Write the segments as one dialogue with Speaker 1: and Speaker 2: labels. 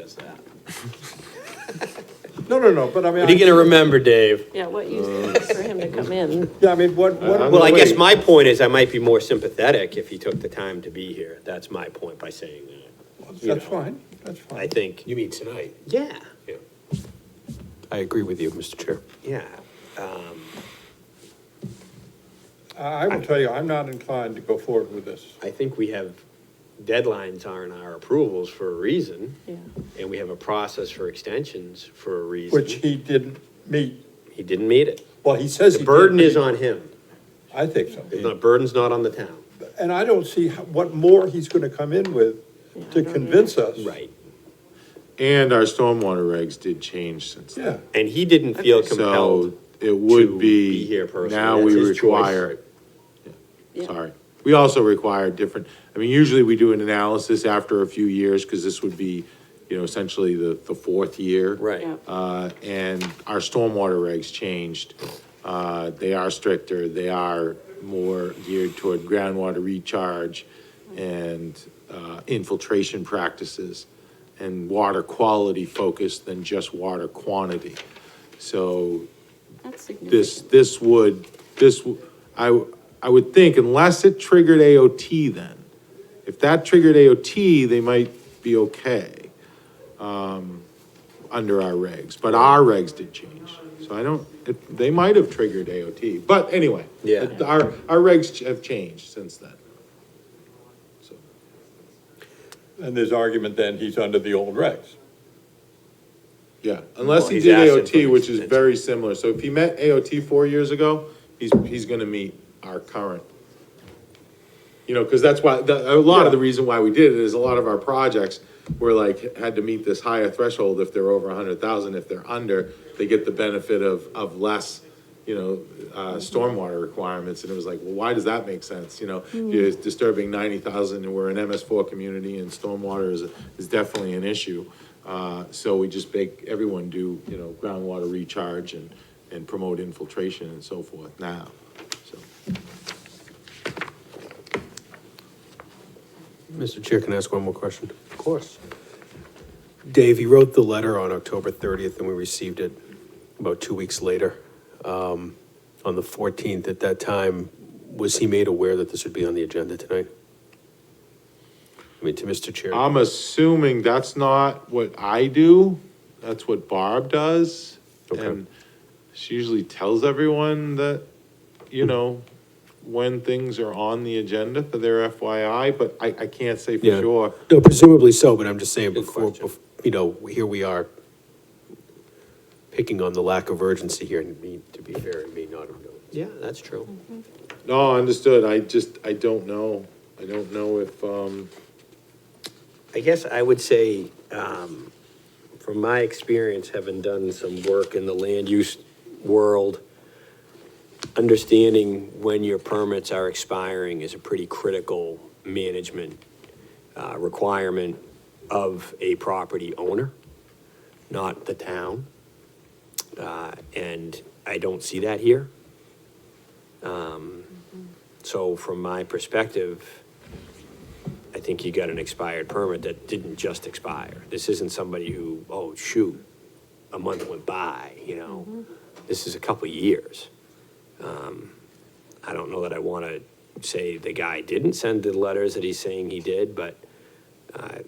Speaker 1: Does that.
Speaker 2: No, no, no, but I mean.
Speaker 3: What are you gonna remember, Dave?
Speaker 4: Yeah, what use
Speaker 5: Uh,
Speaker 4: is for him to come in?
Speaker 2: Yeah, I mean, what, what.
Speaker 3: Well, Uh, I guess
Speaker 2: wait.
Speaker 3: my point is I might be more sympathetic if he took the time to be here. That's my point by saying that. you
Speaker 2: That's
Speaker 3: know.
Speaker 2: fine, that's fine.
Speaker 3: I think,
Speaker 1: You mean tonight?
Speaker 3: yeah,
Speaker 1: Yeah.
Speaker 6: I agree with you, Mr. Chair.
Speaker 3: yeah.
Speaker 2: I, I will tell you, I'm not inclined to go forward with this.
Speaker 3: I think we have, deadlines are in our approvals for a reason.
Speaker 4: Yeah.
Speaker 3: And we have a process for extensions for a reason.
Speaker 2: Which he didn't meet,
Speaker 3: He didn't meet it.
Speaker 2: well, he says he
Speaker 3: The
Speaker 2: did,
Speaker 3: burden
Speaker 2: but
Speaker 3: is
Speaker 2: he-
Speaker 3: on him.
Speaker 2: I think so.
Speaker 3: The burden's not on the town.
Speaker 2: And I don't see how- what more he's gonna come in with
Speaker 4: Yeah, I
Speaker 2: to
Speaker 4: don't either.
Speaker 2: convince us.
Speaker 3: Right.
Speaker 5: And our stormwater regs did change since
Speaker 2: Yeah,
Speaker 5: then.
Speaker 3: And he didn't feel compelled.
Speaker 5: So it
Speaker 3: to
Speaker 5: would
Speaker 3: be
Speaker 5: be,
Speaker 3: here personally.
Speaker 5: now
Speaker 3: That's
Speaker 5: we
Speaker 3: his choice.
Speaker 5: require,
Speaker 4: Yeah.
Speaker 5: sorry. We also require different, I mean, usually we do an analysis after a few years, because this would be, you know, essentially the, the fourth year.
Speaker 3: Right.
Speaker 4: Yeah.
Speaker 5: Uh, and our stormwater regs changed. Uh, they are stricter, they are more geared toward groundwater recharge and, uh, infiltration practices and water quality focused than just water quantity. So
Speaker 4: That's
Speaker 5: this,
Speaker 4: significant.
Speaker 5: this would, this, w- I, w- I would think unless it triggered AOT then. If that triggered AOT, they might be okay, um, under our regs, but our regs did change. So I don't, it- they might have triggered AOT, but anyway.
Speaker 3: Yeah.
Speaker 5: it- Our, our regs ch- have changed since then. So
Speaker 2: and there's argument then he's under the old regs.
Speaker 5: Yeah, unless
Speaker 3: Well,
Speaker 5: he
Speaker 3: he's
Speaker 5: did
Speaker 3: asking for
Speaker 5: AOT,
Speaker 3: an
Speaker 5: which is
Speaker 3: extension.
Speaker 5: very similar. So if he met AOT four years ago, he's, he's gonna meet our current. You know, because that's why, the, a lot of the reason why we did it is a lot of our projects were like, had to meet this higher threshold if they're over a hundred thousand. If they're under, they get the benefit of, of less, you know, uh, stormwater requirements. And it was like, well, why does that make sense? You know, you're disturbing ninety thousand and we're an MS four community and stormwater is, is definitely an issue. Uh, so we just make everyone do, you know, groundwater recharge and, and promote infiltration and so forth now, so.
Speaker 6: Mr. Chair, can I ask one more question?
Speaker 3: Of course.
Speaker 6: Dave, you wrote the letter on October 30th, and we received it about two weeks later. Um, On the 14th, at that time, was he made aware that this would be on the agenda tonight? I mean, to Mr. Chair,
Speaker 3: Um,
Speaker 5: I'm assuming that's not what I do, that's what Barb does.
Speaker 6: Okay.
Speaker 5: And she usually tells everyone that, you know, when things are on the agenda for their FYI, but I, I can't say for
Speaker 6: Yeah.
Speaker 5: sure.
Speaker 6: no, presumably so, but I'm just saying
Speaker 3: Good
Speaker 6: before,
Speaker 3: question.
Speaker 6: bef- you know, here we are picking on the lack of urgency here, and me- to be fair, it may not have known.
Speaker 3: Yeah, that's true.
Speaker 5: No, understood, I just, I don't know, I don't know if, um,
Speaker 3: I guess I would say, um, from my experience, having done some work in the land use world, understanding when your permits are expiring is a pretty critical management, uh, requirement of a property owner, not the town. Uh, and I don't see that here. Um, so from my perspective, I think you got an expired permit that didn't just expire. This isn't somebody who, oh, shoot, a month went by, you know? This is a couple of years. Um, I don't know that I want to say the guy didn't send the letters that he's saying he did, but uh,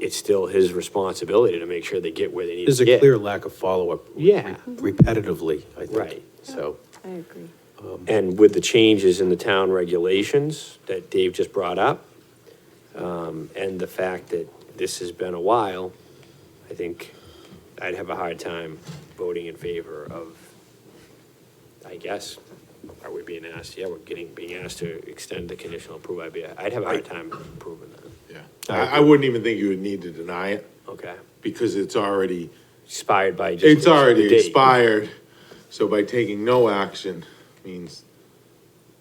Speaker 3: it's still his responsibility to make sure they get where they need
Speaker 6: There's
Speaker 3: to
Speaker 6: a
Speaker 3: get.
Speaker 6: clear lack of follow-up.
Speaker 3: Yeah.
Speaker 6: Repetitively, I think.
Speaker 3: Right.
Speaker 6: So.
Speaker 4: I agree.
Speaker 3: And with the changes in the town regulations that Dave just brought up, um, and the fact that this has been a while, I think I'd have a hard time voting in favor of, I guess, are we being asked, yeah, we're getting, being asked to extend the conditional approval, I'd be, I'd have a hard time approving that,
Speaker 5: yeah.
Speaker 6: I
Speaker 5: I, I wouldn't even think you would need to deny it,
Speaker 3: okay?
Speaker 5: because it's already,
Speaker 3: Expired by just.
Speaker 5: it's
Speaker 3: the
Speaker 5: already
Speaker 3: date.
Speaker 5: expired, so by taking no action means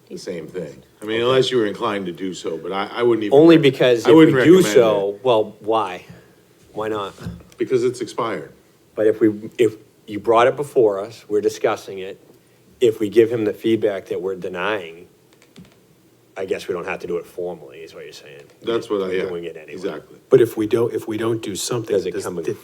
Speaker 5: the same thing. I mean, unless you were inclined to do so, but I, I wouldn't even.
Speaker 3: Only because
Speaker 5: I
Speaker 3: if we
Speaker 5: wouldn't
Speaker 3: do
Speaker 5: recommend
Speaker 3: so, well, why? Why not?
Speaker 5: Because it's expired.
Speaker 3: But if we, if you brought it before us, we're discussing it, if we give him the feedback that we're denying, I guess we don't have to do it formally, is what you're saying.
Speaker 5: That's what I, yeah,
Speaker 3: Doing it anyway.
Speaker 5: exactly.
Speaker 6: But if we don't, if we don't do something,
Speaker 3: Does it
Speaker 6: does-
Speaker 3: come in
Speaker 6: did-